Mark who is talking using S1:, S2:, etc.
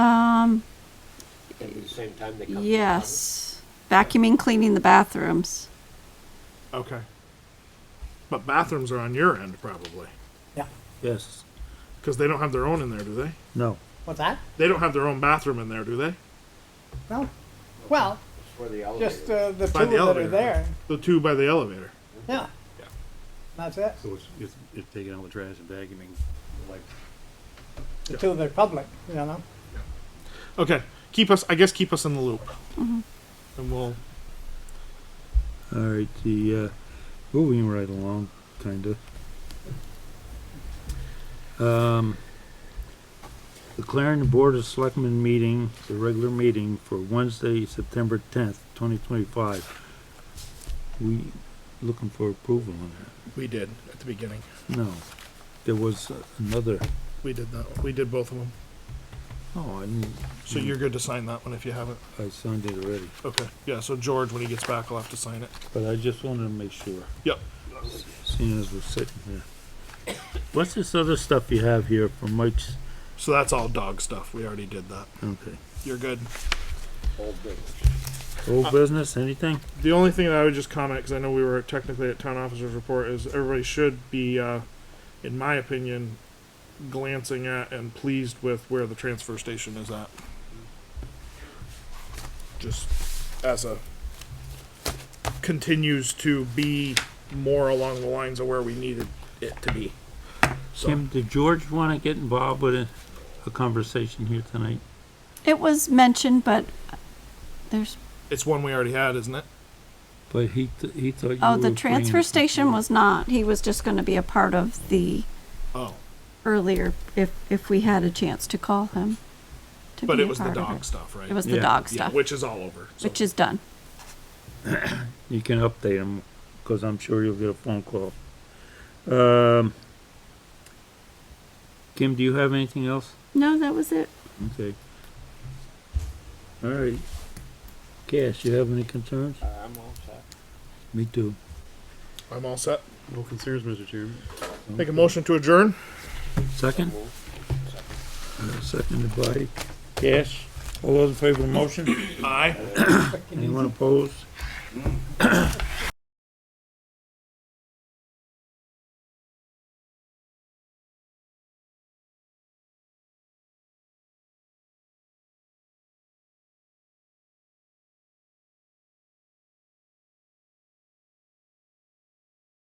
S1: same time they come? to the
S2: Um, Yes. Vacuuming, cleaning the bathrooms.
S3: Okay. But bathrooms are on your end probably,
S4: Yeah.
S5: Yes.
S3: because they don't have their own in there, do they?
S5: No.
S4: What's that?
S3: They don't have their own bathroom in there, do they?
S4: No. Well,
S1: public? For the elevator?
S4: just uh, the two
S3: By the
S4: that
S3: elevator.
S4: are there.
S3: The two by the elevator.
S4: Yeah.
S3: Yeah.
S4: That's it.
S5: So it's, it's, it's taking out the trash and vacuuming, like,
S4: The two that are public, you know?
S3: Okay. Keep us. I guess keep us in the loop. And we'll.
S5: All right, the, uh, moving right along, kinda. Um, the Clarendon Board of Selectmen meeting, the regular meeting for Wednesday, September tenth, twenty twenty-five. We looking for approval on
S3: We did at the beginning.
S5: that? No, there was another,
S3: We did that. We did both of them.
S5: oh, I didn't-
S3: So you're good to sign that one if you haven't.
S5: I signed it already,
S3: Okay. Yeah. So George, when he gets back, will have to sign it.
S5: but I just wanted to make sure.
S3: Yep.
S5: Seeing as we're sitting here. What's this other stuff you have here from Mike's?
S3: So that's all dog stuff. We already did that.
S5: Okay.
S3: You're good.
S1: Old business.
S5: Old business, anything?
S3: The only thing that I would just comment, because I know we were technically at town officer's report, is everybody should be, uh, in my opinion, glancing at and pleased with where the transfer station is at. Just as a continues to be more along the lines of where we needed it to be. So
S5: Kim, did George wanna get involved with a, a conversation here tonight?
S2: It was mentioned, but there's,
S3: it's one we already had, isn't it?
S5: But he, th- he thought you
S2: oh,
S5: were
S2: the
S5: bringing
S2: transfer
S5: it-
S2: station was not. He was just going to be a part of the
S3: Oh,
S2: earlier, if, if we had a chance to call him. to
S3: but
S2: be
S3: it
S2: a
S3: was the
S2: part of
S3: dog stuff, right?
S2: It was the
S5: Yeah.
S2: dog
S3: Yeah,
S2: stuff,
S3: which is all over. so-
S2: which is done.
S5: You can update him, cause I'm sure you'll get a phone call. Um, Kim, do you have anything else?
S2: No, that was it.
S5: Okay. All right. Cash, you have any concerns?
S1: Uh, I'm all set.
S5: Me too.
S3: I'm all set.
S6: No concerns, Mr. Chairman.
S3: Make a motion to adjourn?
S5: Second?
S1: Move.
S5: Seconded by Cash. All those in favor of the motion?
S3: Aye.
S5: Anyone opposed?